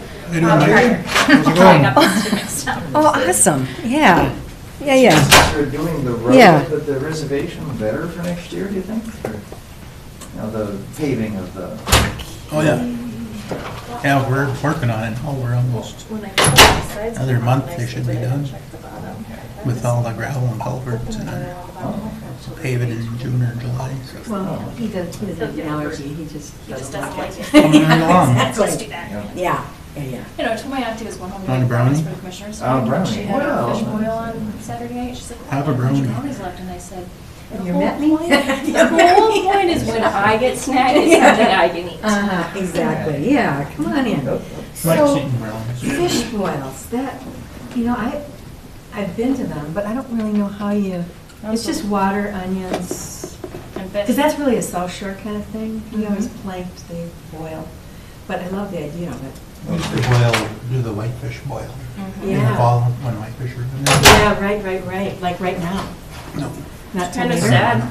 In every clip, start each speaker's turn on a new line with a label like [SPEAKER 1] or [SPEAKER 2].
[SPEAKER 1] Hey, New Megan, how's it
[SPEAKER 2] I
[SPEAKER 1] going?
[SPEAKER 2] got those two mixed up.
[SPEAKER 3] Oh, awesome, yeah, yeah, yeah.
[SPEAKER 4] Since They're doing the road,
[SPEAKER 3] Yeah.
[SPEAKER 4] the the reservation better for next year, do you think? Or, You know, the paving of the,
[SPEAKER 1] Oh, yeah. Yeah, we're working on it. Oh, we're almost,
[SPEAKER 2] When I put my sides
[SPEAKER 1] Another
[SPEAKER 2] on,
[SPEAKER 1] month
[SPEAKER 2] I
[SPEAKER 1] they should
[SPEAKER 2] said,
[SPEAKER 1] be
[SPEAKER 2] "I didn't
[SPEAKER 1] done
[SPEAKER 2] check the
[SPEAKER 4] oh,
[SPEAKER 2] bottom."
[SPEAKER 1] with all the gravel and culverts and uh, pave it in June or July. so.
[SPEAKER 5] Well, he does, he doesn't have an allergy, he just
[SPEAKER 2] He just
[SPEAKER 5] doesn't
[SPEAKER 2] doesn't
[SPEAKER 5] like
[SPEAKER 2] like
[SPEAKER 5] it.
[SPEAKER 2] it.
[SPEAKER 1] Coming right along.
[SPEAKER 5] Exactly.
[SPEAKER 2] Let's do that.
[SPEAKER 4] you know,
[SPEAKER 5] Yeah, yeah, yeah.
[SPEAKER 2] You know, I told my auntie who was going home.
[SPEAKER 1] Want a
[SPEAKER 2] with brownies
[SPEAKER 1] brownie?
[SPEAKER 2] For the commissioners.
[SPEAKER 4] Oh, brownie.
[SPEAKER 2] She had a
[SPEAKER 4] Wow.
[SPEAKER 2] fish boil on Saturday night, she's like.
[SPEAKER 1] Have a
[SPEAKER 2] "Oh, how much
[SPEAKER 1] brownie."
[SPEAKER 2] Brownies left, and I said. "The
[SPEAKER 5] You
[SPEAKER 2] whole
[SPEAKER 5] met me?
[SPEAKER 2] point-
[SPEAKER 5] You
[SPEAKER 2] The whole
[SPEAKER 5] met me?
[SPEAKER 2] point is when I get snagged, it's something I can eat.
[SPEAKER 5] Uh-huh, exactly, yeah, come on in.
[SPEAKER 4] Nope.
[SPEAKER 1] Like
[SPEAKER 5] So,
[SPEAKER 1] seeing brownies.
[SPEAKER 5] fish boils, that, you know, I, I've been to them, but I don't really know how you, it's just water, onions,
[SPEAKER 2] And but-
[SPEAKER 5] because that's really a South Shore kind of thing. We always
[SPEAKER 3] Mm-hmm.
[SPEAKER 5] planked, they boil, but I love the idea of it.
[SPEAKER 1] We used to boil, do the whitefish boil in
[SPEAKER 2] Mhm.
[SPEAKER 1] the
[SPEAKER 5] Mm-hmm. Yeah.
[SPEAKER 1] fall when whitefish were. in there.
[SPEAKER 5] Yeah, right, right, right, like right now,
[SPEAKER 1] No.
[SPEAKER 5] not till
[SPEAKER 2] Kinda
[SPEAKER 5] later.
[SPEAKER 2] sad.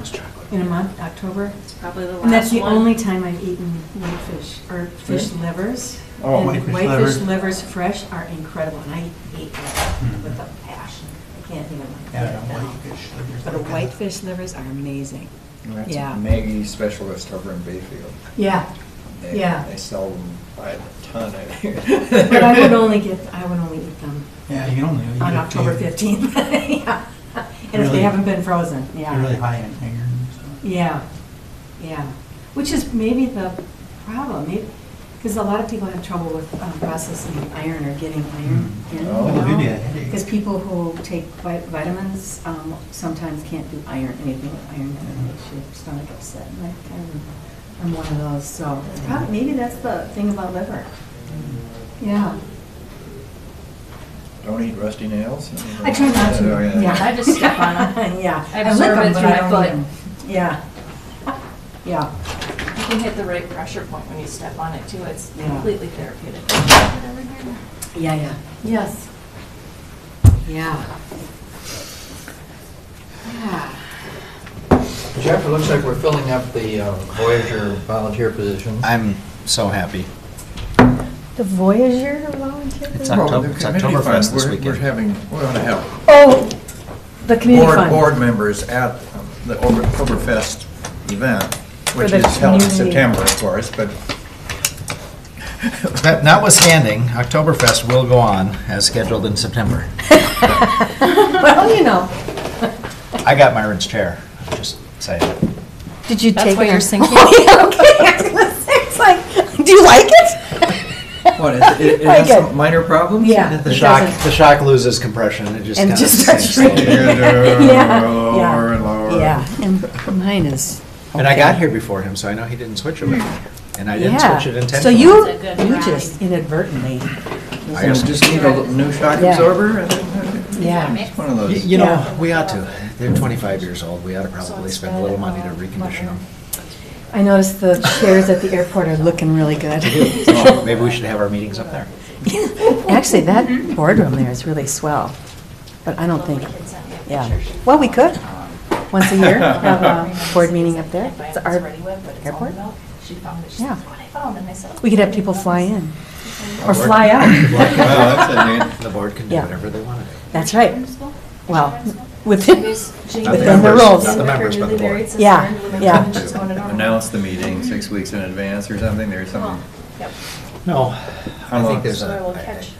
[SPEAKER 5] In a month, October.
[SPEAKER 2] It's probably the last one.
[SPEAKER 5] And that's the only time I've eaten whitefish, or fish livers.
[SPEAKER 4] Oh,
[SPEAKER 5] And
[SPEAKER 1] whitefish
[SPEAKER 5] Whitefish
[SPEAKER 1] liver.
[SPEAKER 5] livers fresh are incredible, and I hate that with
[SPEAKER 1] Mhm.
[SPEAKER 5] a passion. I can't even look at
[SPEAKER 1] Yeah,
[SPEAKER 5] it now.
[SPEAKER 1] whitefish. livers,
[SPEAKER 5] But the
[SPEAKER 1] okay.
[SPEAKER 5] whitefish livers are amazing.
[SPEAKER 4] That's
[SPEAKER 5] Yeah.
[SPEAKER 6] Maggie specialist over in Bayfield.
[SPEAKER 5] Yeah,
[SPEAKER 6] They-
[SPEAKER 5] Yeah.
[SPEAKER 6] They sell them by the ton out here.
[SPEAKER 5] but I would only get, I would only eat them
[SPEAKER 1] Yeah, you only. eat
[SPEAKER 5] on
[SPEAKER 1] a
[SPEAKER 5] October
[SPEAKER 1] few.
[SPEAKER 5] 15th. Yeah. And if
[SPEAKER 1] Really?
[SPEAKER 5] they haven't been frozen,
[SPEAKER 1] They're really
[SPEAKER 5] yeah.
[SPEAKER 1] high in iron, so.
[SPEAKER 5] Yeah, yeah. Which is maybe the problem, because a lot of people have trouble with um, processing iron or getting iron in. you
[SPEAKER 4] Oh,
[SPEAKER 1] maybe
[SPEAKER 5] know?
[SPEAKER 1] a headache.
[SPEAKER 5] Because people who take vi- vitamins um, sometimes can't do iron, anything with iron, and it makes your stomach upset. And I- I'm- I'm one of those, so it's probably, maybe that's the thing about liver. Yeah.
[SPEAKER 6] Don't eat rusty nails.
[SPEAKER 5] I try not
[SPEAKER 6] Oh,
[SPEAKER 5] to, yeah.
[SPEAKER 2] I just step on 'em.
[SPEAKER 5] Yeah.
[SPEAKER 2] I
[SPEAKER 5] lick
[SPEAKER 2] absorb
[SPEAKER 5] 'em,
[SPEAKER 2] it
[SPEAKER 5] but
[SPEAKER 2] through
[SPEAKER 5] I
[SPEAKER 2] my
[SPEAKER 5] don't
[SPEAKER 2] foot.
[SPEAKER 5] eat 'em. Yeah. Yeah.
[SPEAKER 2] You can hit the right pressure point when you step on it too. It's
[SPEAKER 5] Yeah.
[SPEAKER 2] completely therapeutic.
[SPEAKER 5] Yeah, yeah. Yes. Yeah. Yeah.
[SPEAKER 7] Jeff, it looks like we're filling up the uh, Voyager volunteer position.
[SPEAKER 6] I'm so happy.
[SPEAKER 3] The Voyager volunteer?
[SPEAKER 6] It's
[SPEAKER 3] group?
[SPEAKER 6] October,
[SPEAKER 4] Well,
[SPEAKER 6] it's
[SPEAKER 4] the community
[SPEAKER 6] Oktoberfest
[SPEAKER 4] fund,
[SPEAKER 6] this
[SPEAKER 4] we're-
[SPEAKER 6] weekend.
[SPEAKER 4] We're having, we want to have
[SPEAKER 3] Oh, the community
[SPEAKER 4] board,
[SPEAKER 3] fund.
[SPEAKER 4] board members at um, the Ober- Oktoberfest event, which
[SPEAKER 3] the
[SPEAKER 4] is held in
[SPEAKER 3] community.
[SPEAKER 4] September, of course, but
[SPEAKER 6] That- Notwithstanding, Oktoberfest will go on as scheduled in September.
[SPEAKER 5] Well, you know.
[SPEAKER 6] I got Myron's chair, I'm just saying.
[SPEAKER 3] Did you
[SPEAKER 2] That's
[SPEAKER 3] take
[SPEAKER 2] why
[SPEAKER 3] it?
[SPEAKER 2] you're sinking.
[SPEAKER 3] Oh, yeah, okay, I was gonna say, it's like, do you like it?
[SPEAKER 6] What,
[SPEAKER 3] it- it- it I has some get-
[SPEAKER 4] minor problems?
[SPEAKER 5] Yeah.
[SPEAKER 6] The
[SPEAKER 5] it
[SPEAKER 6] shock,
[SPEAKER 5] doesn't-
[SPEAKER 6] the shock loses compression, it just kind
[SPEAKER 3] And it
[SPEAKER 6] of
[SPEAKER 3] just starts
[SPEAKER 6] sinks
[SPEAKER 3] shrinking.
[SPEAKER 6] slowly.
[SPEAKER 4] Yeah,
[SPEAKER 5] Yeah,
[SPEAKER 4] lower
[SPEAKER 5] yeah.
[SPEAKER 4] and lower.
[SPEAKER 3] Yeah, and mine is.
[SPEAKER 6] And I got
[SPEAKER 3] okay.
[SPEAKER 6] here before him, so I know he didn't switch it with me. And I didn't
[SPEAKER 3] Hmm. Yeah.
[SPEAKER 6] switch it
[SPEAKER 3] So
[SPEAKER 6] intentionally.
[SPEAKER 3] you,
[SPEAKER 2] It's a good
[SPEAKER 3] you
[SPEAKER 2] ride.
[SPEAKER 3] just inadvertently,
[SPEAKER 4] So we just need a little new shock
[SPEAKER 3] Yeah.
[SPEAKER 4] absorber, I think,
[SPEAKER 3] yeah.
[SPEAKER 4] it's one of
[SPEAKER 6] Y-
[SPEAKER 4] those.
[SPEAKER 6] You
[SPEAKER 3] Yeah.
[SPEAKER 6] know, we ought to. They're 25 years old. We ought to probably
[SPEAKER 5] it's
[SPEAKER 6] spend a
[SPEAKER 5] red,
[SPEAKER 6] little money to
[SPEAKER 5] uh,
[SPEAKER 6] recondition them.
[SPEAKER 3] I noticed the chairs at the airport are looking really good.
[SPEAKER 6] So Oh, Maybe we should have our meetings up there.
[SPEAKER 3] Actually, that boardroom there is really swell, but I don't think,
[SPEAKER 2] Kids sent me a
[SPEAKER 3] yeah.
[SPEAKER 2] picture. Um, She-
[SPEAKER 3] Well, we could, once a year, have a board meeting up there. It's our airport. Yeah. We could have people fly in, or fly out.
[SPEAKER 4] Well, that's it, man.
[SPEAKER 6] The board can do
[SPEAKER 3] Yeah.
[SPEAKER 6] whatever they want to do.
[SPEAKER 3] That's right. Well, within,
[SPEAKER 6] Not the
[SPEAKER 3] within the
[SPEAKER 6] members,
[SPEAKER 3] rules.
[SPEAKER 6] Not the members, but the board.
[SPEAKER 3] Yeah, yeah.
[SPEAKER 4] Announce the meeting six weeks in advance or something, there's some,
[SPEAKER 6] No,
[SPEAKER 4] How
[SPEAKER 6] I
[SPEAKER 4] long?
[SPEAKER 6] think there's
[SPEAKER 2] So I will
[SPEAKER 6] a,
[SPEAKER 2] catch.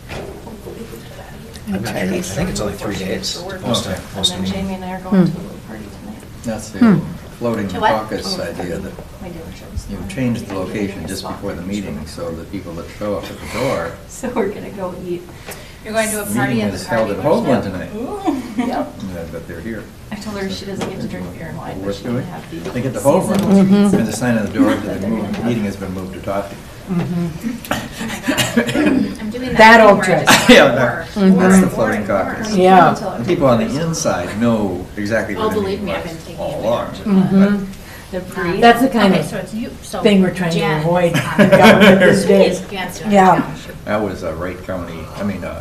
[SPEAKER 6] I'm not sure. I think it's only three days to post a,
[SPEAKER 4] Okay.
[SPEAKER 2] And
[SPEAKER 6] post a
[SPEAKER 2] then
[SPEAKER 6] meeting.
[SPEAKER 2] Jamie and I are going
[SPEAKER 3] Hmm.
[SPEAKER 2] to a little party tonight.
[SPEAKER 4] that's the
[SPEAKER 3] Hmm.
[SPEAKER 4] floating
[SPEAKER 2] To what? Oh,
[SPEAKER 4] caucus idea that
[SPEAKER 2] My dealerships.
[SPEAKER 4] you change the location just before the meeting so the people that show up at the door.
[SPEAKER 2] So we're gonna go eat. You're going to a party
[SPEAKER 4] Meeting
[SPEAKER 2] at the
[SPEAKER 4] is held
[SPEAKER 2] party.
[SPEAKER 4] at Hoagland tonight,
[SPEAKER 2] Yep.
[SPEAKER 4] Yeah, but they're here.
[SPEAKER 2] I told her she doesn't get to drink beer Mm-hmm. and wine, but
[SPEAKER 4] Worth
[SPEAKER 2] she can
[SPEAKER 4] doing.
[SPEAKER 2] have the.
[SPEAKER 4] They get the
[SPEAKER 2] seasonal
[SPEAKER 4] Hoagland,
[SPEAKER 2] treats.
[SPEAKER 4] and the sign on the door that the move- meeting has been moved to Tofty.
[SPEAKER 3] Mm-hmm.
[SPEAKER 2] I'm doing that.
[SPEAKER 3] That
[SPEAKER 2] thing
[SPEAKER 3] old
[SPEAKER 2] where I
[SPEAKER 3] trick.
[SPEAKER 2] just-
[SPEAKER 4] Yeah, that-
[SPEAKER 2] Or-
[SPEAKER 4] that's the
[SPEAKER 2] or-
[SPEAKER 4] floating
[SPEAKER 2] or-
[SPEAKER 4] caucus.
[SPEAKER 2] or-
[SPEAKER 3] Yeah.
[SPEAKER 2] until
[SPEAKER 4] And people on the
[SPEAKER 2] everybody's-
[SPEAKER 4] inside know exactly
[SPEAKER 2] Oh,
[SPEAKER 4] what the
[SPEAKER 2] believe
[SPEAKER 4] meeting
[SPEAKER 2] me, I've
[SPEAKER 4] was
[SPEAKER 2] been taking
[SPEAKER 4] all
[SPEAKER 2] advantage of
[SPEAKER 4] along. but-
[SPEAKER 2] The breed.
[SPEAKER 3] That's the kind of thing we're trying to avoid in government these days. Yeah.
[SPEAKER 4] That was a Wright County, I mean, uh,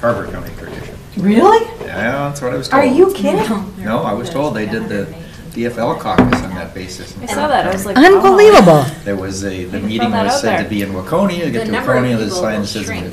[SPEAKER 4] Carver County tradition.
[SPEAKER 3] Really?
[SPEAKER 4] Yeah, that's what I was told.
[SPEAKER 3] Are you kidding?
[SPEAKER 4] No, I was told they did the DFL caucus on that basis. in
[SPEAKER 2] I saw that, I was
[SPEAKER 4] Carver
[SPEAKER 2] like. "Oh wow.
[SPEAKER 3] Unbelievable.
[SPEAKER 4] County. There was a, the
[SPEAKER 2] Didn't
[SPEAKER 4] meeting
[SPEAKER 2] throw that
[SPEAKER 4] was
[SPEAKER 2] out
[SPEAKER 4] said
[SPEAKER 2] there.
[SPEAKER 4] to be in Waconia, you
[SPEAKER 2] The
[SPEAKER 4] get to
[SPEAKER 2] number of
[SPEAKER 4] Waconia, the
[SPEAKER 2] people
[SPEAKER 4] sign
[SPEAKER 2] will
[SPEAKER 4] says
[SPEAKER 2] shrink.